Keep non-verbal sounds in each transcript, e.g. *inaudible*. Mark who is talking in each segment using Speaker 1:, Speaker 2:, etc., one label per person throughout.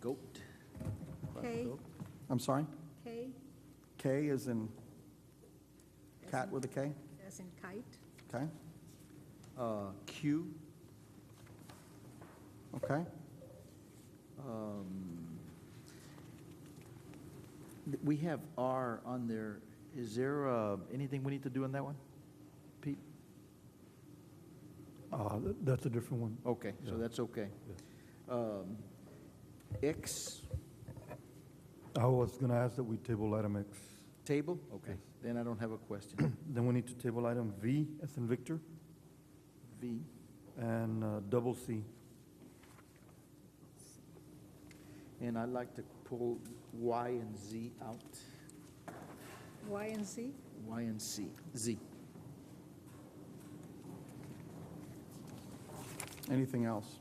Speaker 1: Goat.
Speaker 2: K,
Speaker 3: I'm sorry?
Speaker 2: K,
Speaker 3: K is in cat with a K?
Speaker 2: as in kite.
Speaker 3: Okay,
Speaker 1: Uh, Q,
Speaker 3: okay.
Speaker 1: um, th- we have R on there. Is there, uh, anything we need to do on that one? Pete?
Speaker 4: Uh, th- That's a different one.
Speaker 1: Okay, so
Speaker 4: Yeah.
Speaker 1: that's okay.
Speaker 4: Yeah.
Speaker 1: Um, X,
Speaker 4: I was going to ask that we table item X.
Speaker 1: table? Okay, then I don't have a question.
Speaker 4: Then we need to table item V, as in Victor,
Speaker 1: V,
Speaker 4: and uh, double C.
Speaker 1: and I'd like to pull Y and Z out,
Speaker 2: Y and Z,
Speaker 1: Y and C, Z.
Speaker 3: Anything else?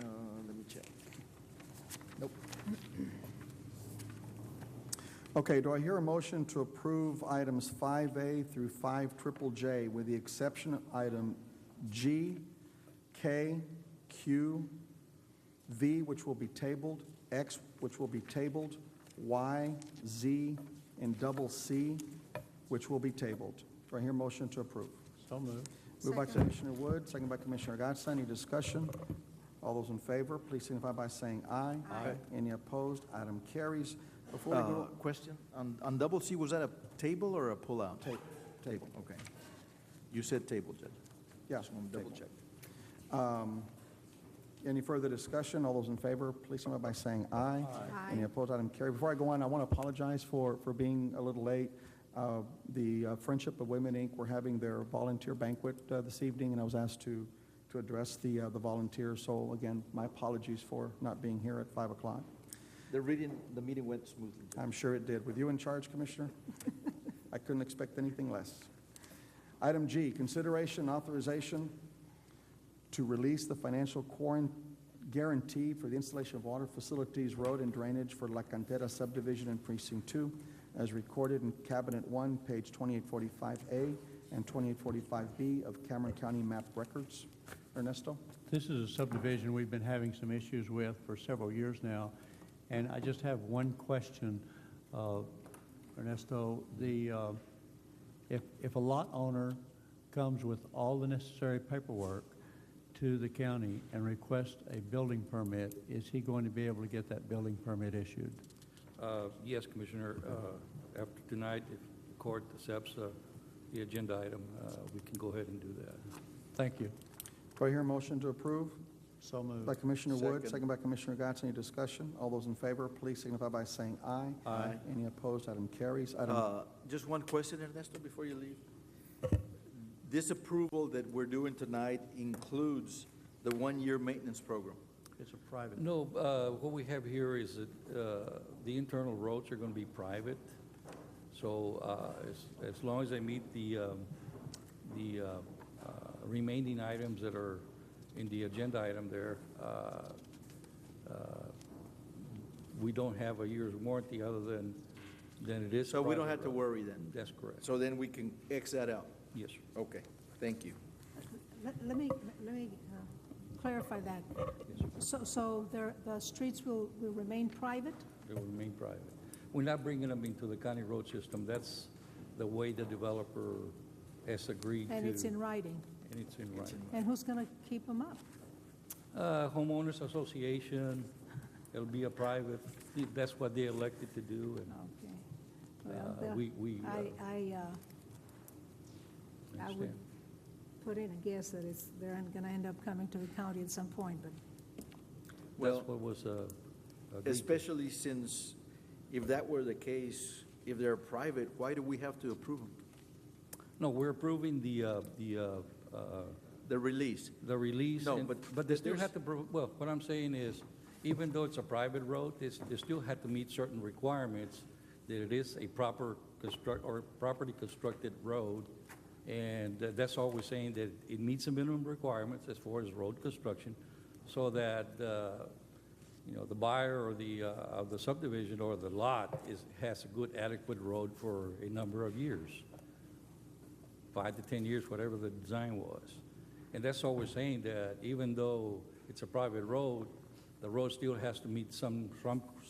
Speaker 1: Uh, let me check. Nope.
Speaker 3: Okay, do I hear a motion to approve items 5A through 5 triple J with the exception of item G, K, Q, V, which will be tabled, X, which will be tabled, Y, Z, and double C, which will be tabled? Do I hear a motion to approve?
Speaker 4: So moved.
Speaker 3: Moved by
Speaker 2: Second.
Speaker 3: Commissioner Wood, second by Commissioner Gatsa. Any discussion? All those in favor, please signify by saying aye.
Speaker 2: Aye.
Speaker 3: Any opposed? Item carries. Before we
Speaker 1: Uh,
Speaker 3: go,
Speaker 1: Question, on, on double C, was that a table or a pullout?
Speaker 3: Ta- table.
Speaker 1: Okay. You said table, Judge.
Speaker 3: oh, Yeah,
Speaker 1: Just want to double
Speaker 3: table.
Speaker 1: check.
Speaker 3: Um, Any further discussion? All those in favor, please signify by saying aye.
Speaker 2: Aye.
Speaker 3: Any opposed, item carried. Before I go on, I want to apologize for, for being a little late. Uh, The uh, Friendship of Women, Inc., were having their volunteer banquet uh, this evening, and I was asked to, to address the, uh, the volunteers. So again, my apologies for not being here at 5 o'clock.
Speaker 1: The reading, the meeting went smoothly. Judge.
Speaker 3: I'm sure it did. With you in charge, Commissioner, *laughs* I couldn't expect anything less. Item G, consideration authorization to release the financial quaran- guarantee for the installation of water facilities, road, and drainage for La Cantera subdivision in Precinct 2, as recorded in Cabinet 1, page 2845A and 2845B of Cameron County map records. Ernesto?
Speaker 5: This is a subdivision we've been having some issues with for several years now, and I just have one question, uh, Ernesto. The, uh, if, if a lot owner comes with all the necessary paperwork to the county and requests a building permit, is he going to be able to get that building permit issued?
Speaker 6: Uh, Yes, Commissioner, Uh, after tonight, if the court accepts uh, the agenda item, uh, we can go ahead and do that.
Speaker 5: Thank you.
Speaker 3: Do I hear a motion to approve?
Speaker 5: So
Speaker 3: By
Speaker 5: moved.
Speaker 3: Commissioner Wood,
Speaker 1: Second.
Speaker 3: second by Commissioner Gatz. Any discussion? All those in favor, please signify by saying aye.
Speaker 1: Aye.
Speaker 3: Any opposed? Item carries. Item,
Speaker 1: Uh, Just one question, Ernesto, before you leave. This approval that we're doing tonight includes the one-year maintenance program.
Speaker 5: It's a private.
Speaker 6: No, uh, what we have here is that uh, the internal roads are going to be private, so uh, as- as long as they meet the um, the uh, uh, remaining items that are in the agenda item there, uh, uh, we don't have a year's warranty other than, than it is.
Speaker 1: So we don't
Speaker 6: private
Speaker 1: have to
Speaker 6: road.
Speaker 1: worry then.
Speaker 6: That's correct,
Speaker 1: So then we can X that out.
Speaker 6: yes. sir.
Speaker 1: Okay, thank you.
Speaker 2: Let, let me, let me uh, clarify that. So, so there, the streets will, will remain private?
Speaker 6: They will remain private. We're not bringing them into the county road system. That's the way the developer has agreed to.
Speaker 2: And it's in writing?
Speaker 6: And it's in writing.
Speaker 2: And who's going to keep them up?
Speaker 6: Uh, Homeowners Association, it'll be a private, that's what they elected to do, and
Speaker 2: Okay.
Speaker 6: Uh,
Speaker 2: Well, the-
Speaker 6: we- we, uh,
Speaker 2: I, I, uh, I would
Speaker 6: Understand.
Speaker 2: put in a guess that it's, they're going to end up coming to the county at some point, but
Speaker 1: Well,
Speaker 6: that's what was uh, agreed to.
Speaker 1: Especially since if that were the case, if they're private, why do we have to approve them?
Speaker 6: No, we're approving the, uh, the, uh, uh,
Speaker 1: The release?
Speaker 6: the release.
Speaker 1: No,
Speaker 6: and-
Speaker 1: but-
Speaker 6: But they still
Speaker 1: there's-
Speaker 6: have to, pro- well, what I'm saying is, even though it's a private road, it's, they still have to meet certain requirements that it is a proper construct, or properly constructed road. And tha- that's all we're saying, that it meets the minimum requirements as far as road construction, so that, uh, you know, the buyer or the, uh, of the subdivision or the lot is, has a good adequate road for a number of years five to 10 years, whatever the design was. And that's all we're saying, that even though it's a private road, the road still has to meet some, some